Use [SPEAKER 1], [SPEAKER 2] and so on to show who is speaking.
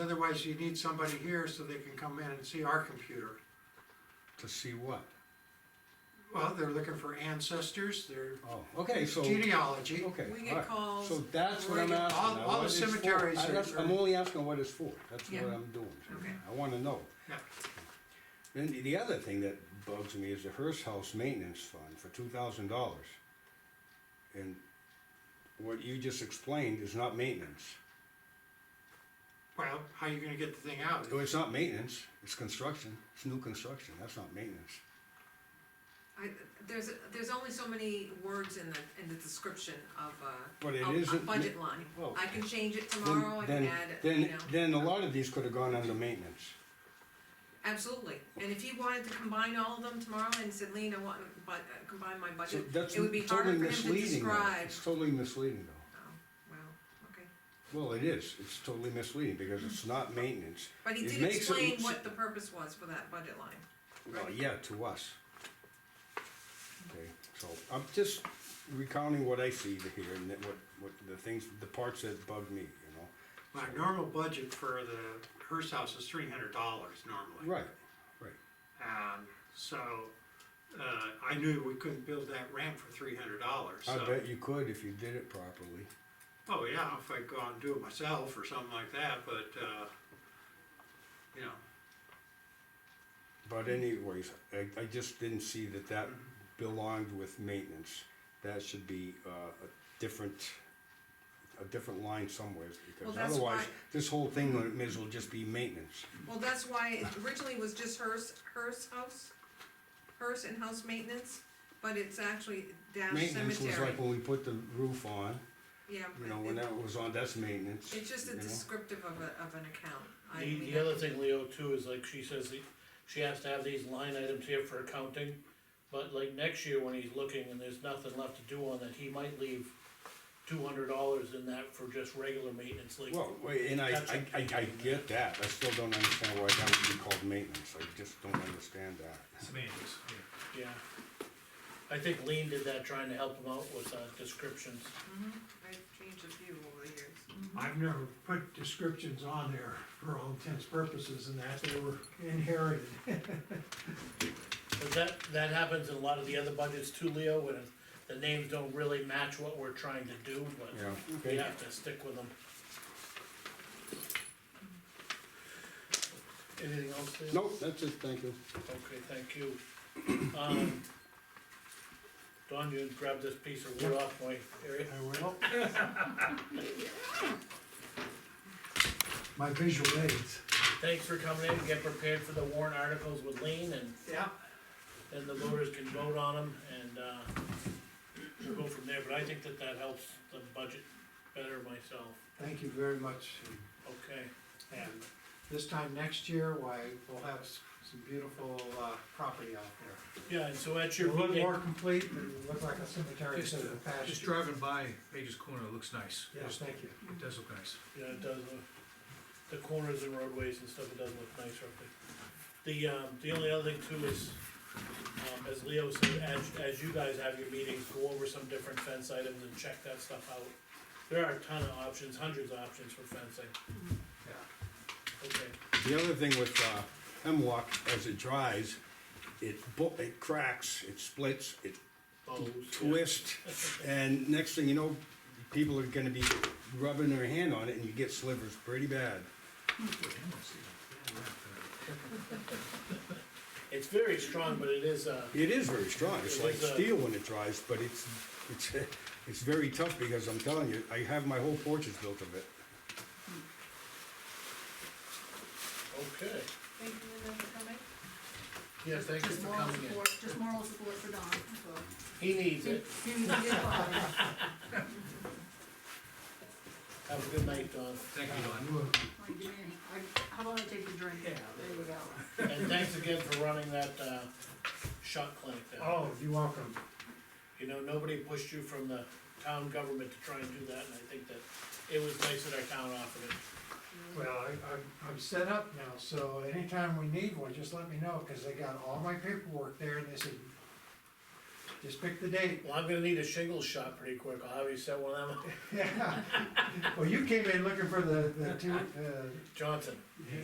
[SPEAKER 1] Otherwise, you need somebody here so they can come in and see our computer.
[SPEAKER 2] to see what?
[SPEAKER 1] Well, they're looking for ancestors, their
[SPEAKER 2] Oh, okay, so, okay,
[SPEAKER 1] genealogy.
[SPEAKER 3] We
[SPEAKER 2] all
[SPEAKER 3] get
[SPEAKER 2] right.
[SPEAKER 3] calls.
[SPEAKER 2] So that's what I'm
[SPEAKER 3] we're-
[SPEAKER 2] asking.
[SPEAKER 1] all-
[SPEAKER 2] now,
[SPEAKER 1] all the
[SPEAKER 2] what it's for.
[SPEAKER 1] cemeteries
[SPEAKER 2] I-
[SPEAKER 1] are-
[SPEAKER 2] that's- I'm only asking what it's for, that's what
[SPEAKER 3] Yeah.
[SPEAKER 2] I'm doing.
[SPEAKER 3] Okay.
[SPEAKER 2] I wanna know.
[SPEAKER 1] Yeah.
[SPEAKER 2] Then the- the other thing that bugs me is the Hearst House Maintenance Fund for two thousand dollars. And what you just explained is not maintenance.
[SPEAKER 1] Well, how you gonna get the thing out?
[SPEAKER 2] Oh, it's not maintenance, it's construction, it's new construction, that's not maintenance.
[SPEAKER 3] I, there's, there's only so many words in the, in the description of a,
[SPEAKER 2] But it
[SPEAKER 3] a- a
[SPEAKER 2] isn't ma-
[SPEAKER 3] budget line.
[SPEAKER 2] Well,
[SPEAKER 3] I can change it
[SPEAKER 2] oh, Then-
[SPEAKER 3] tomorrow, I can
[SPEAKER 2] then-
[SPEAKER 3] add, it, you know,
[SPEAKER 2] Then, then a lot of these could have gone under maintenance.
[SPEAKER 3] absolutely. And if he wanted to combine all of them tomorrow and said, Lean, I want to bu- uh, combine my
[SPEAKER 2] So
[SPEAKER 3] budget,
[SPEAKER 2] that's
[SPEAKER 3] it would be harder
[SPEAKER 2] totally
[SPEAKER 3] for him to
[SPEAKER 2] misleading though,
[SPEAKER 3] describe.
[SPEAKER 2] it's totally misleading though.
[SPEAKER 3] Oh, well, okay.
[SPEAKER 2] Well, it is, it's totally misleading because it's not maintenance.
[SPEAKER 3] But he
[SPEAKER 2] It
[SPEAKER 3] did
[SPEAKER 2] makes it
[SPEAKER 3] explain
[SPEAKER 2] look-
[SPEAKER 3] what the purpose was for that budget line.
[SPEAKER 2] Well, yeah, to us. Okay, so I'm just recounting what I see here and that what, what the things, the parts that bug me, you
[SPEAKER 1] My normal budget for the Hearst House is three hundred dollars normally.
[SPEAKER 2] know? Right,
[SPEAKER 1] Um, so, uh, I knew we couldn't build that ramp for three hundred dollars,
[SPEAKER 2] I
[SPEAKER 1] so.
[SPEAKER 2] bet you could if you did it properly.
[SPEAKER 1] Oh, yeah, if I go out and do it myself or something like that, but, uh, you know,
[SPEAKER 2] But anyways, I, I just didn't see that that belonged with maintenance. That should be, uh, a different, a different line somewhere
[SPEAKER 3] Well,
[SPEAKER 2] because
[SPEAKER 3] that's
[SPEAKER 2] otherwise,
[SPEAKER 3] why-
[SPEAKER 2] this whole thing may as well just be maintenance.
[SPEAKER 3] Well, that's why it originally was just hers, hers house, hers and house maintenance, but it's actually dash
[SPEAKER 2] Maintenance was
[SPEAKER 3] cemetery.
[SPEAKER 2] like when we put the roof on,
[SPEAKER 3] Yeah.
[SPEAKER 2] you know, when
[SPEAKER 3] it-
[SPEAKER 2] that was on, that's maintenance.
[SPEAKER 3] It's just a
[SPEAKER 2] you know?
[SPEAKER 3] descriptive of a, of an account. I
[SPEAKER 4] The,
[SPEAKER 3] mean,
[SPEAKER 4] the other thing, Leo, too, is like she says, the- she has to have these line items here for accounting, but like next year when he's looking and there's nothing left to do on that, he might leave two hundred dollars in that for just regular maintenance, like,
[SPEAKER 2] Well, wait, and I, I,
[SPEAKER 4] Gotcha.
[SPEAKER 2] I, I get that, I still don't understand why that would be called maintenance, I just don't understand that.
[SPEAKER 5] Semantics, yeah.
[SPEAKER 4] yeah. I think Lean did that trying to help him out with, uh, descriptions.
[SPEAKER 3] I've changed a few over the years.
[SPEAKER 6] I've never put descriptions on there for all intents purposes and that they were inherited.
[SPEAKER 4] But that, that happens in a lot of the other budgets too, Leo, when the names don't really match what we're trying to do, but
[SPEAKER 2] Yeah,
[SPEAKER 4] we
[SPEAKER 2] okay,
[SPEAKER 4] have to stick with them. Anything else, Leo?
[SPEAKER 2] nope, that's it, thank you.
[SPEAKER 4] Okay, thank you. Um, Don, you grab this piece of wood off my area.
[SPEAKER 6] I will. My visual aids.
[SPEAKER 4] Thanks for coming in, get prepared for the warrant articles with Lean, and
[SPEAKER 1] yeah,
[SPEAKER 4] then the voters can vote on them, and, uh, we'll go from there, but I think that that helps the budget better myself,
[SPEAKER 1] thank you very much.
[SPEAKER 4] okay?
[SPEAKER 1] And this time next year, why, we'll have s- some beautiful, uh, property out there.
[SPEAKER 4] Yeah, and so at
[SPEAKER 1] A
[SPEAKER 4] your
[SPEAKER 1] little
[SPEAKER 4] meeting,
[SPEAKER 1] more complete, and look like a cemetery
[SPEAKER 5] Just,
[SPEAKER 1] instead of a
[SPEAKER 5] uh, just
[SPEAKER 1] pasture.
[SPEAKER 5] driving by Page's Corner, it looks nice.
[SPEAKER 1] Yes,
[SPEAKER 5] Just-
[SPEAKER 1] thank you.
[SPEAKER 5] It does look nice.
[SPEAKER 4] yeah, it does, look- the corners and roadways and stuff, it does look nice up there. The, um, the only other thing too is, um, as Leo said, as, as you guys have your meetings, go over some different fence items and check that stuff out. There are a ton of options, hundreds of options for fencing,
[SPEAKER 1] Yeah.
[SPEAKER 4] okay,
[SPEAKER 2] The other thing with, uh, hemlock, as it dries, it bu- it cracks, it splits, it
[SPEAKER 4] bows. yeah.
[SPEAKER 2] twists, and next thing you know, people are gonna be rubbing their hand on it and you get slivers pretty bad.
[SPEAKER 4] It's very strong, but it is, uh,
[SPEAKER 2] It is very strong, it's
[SPEAKER 4] It
[SPEAKER 2] like
[SPEAKER 4] is, uh,
[SPEAKER 2] steel when it dries, but it's, it's, it's very tough because I'm telling you, I have my whole porch is built of it.
[SPEAKER 4] okay.
[SPEAKER 7] Thank you, Linda, for coming.
[SPEAKER 4] Yeah, thank you
[SPEAKER 7] Just
[SPEAKER 4] for
[SPEAKER 7] moral
[SPEAKER 4] coming in.
[SPEAKER 7] support- Just moral support for Don, so.
[SPEAKER 4] He needs it, have a good night, Don,
[SPEAKER 5] Thank you, Don.
[SPEAKER 7] Like, give me a- I- How about I take the drink? Yeah. There you go.
[SPEAKER 4] and thanks again for running that, uh, shot clinic there.
[SPEAKER 1] Oh, you're welcome.
[SPEAKER 4] You know, nobody pushed you from the town government to try and do that, and I think that it was nice that our town offered it.
[SPEAKER 6] Well, I, I'm, I'm set up now, so anytime we need one, just let me know, cause they got all my paperwork there and they said, Just pick the date.
[SPEAKER 4] Well, I'm gonna need a shingle shot pretty quick, I'll have you set one of them,
[SPEAKER 6] Yeah. Well, you came in looking for the, the two, uh,
[SPEAKER 4] Johnson.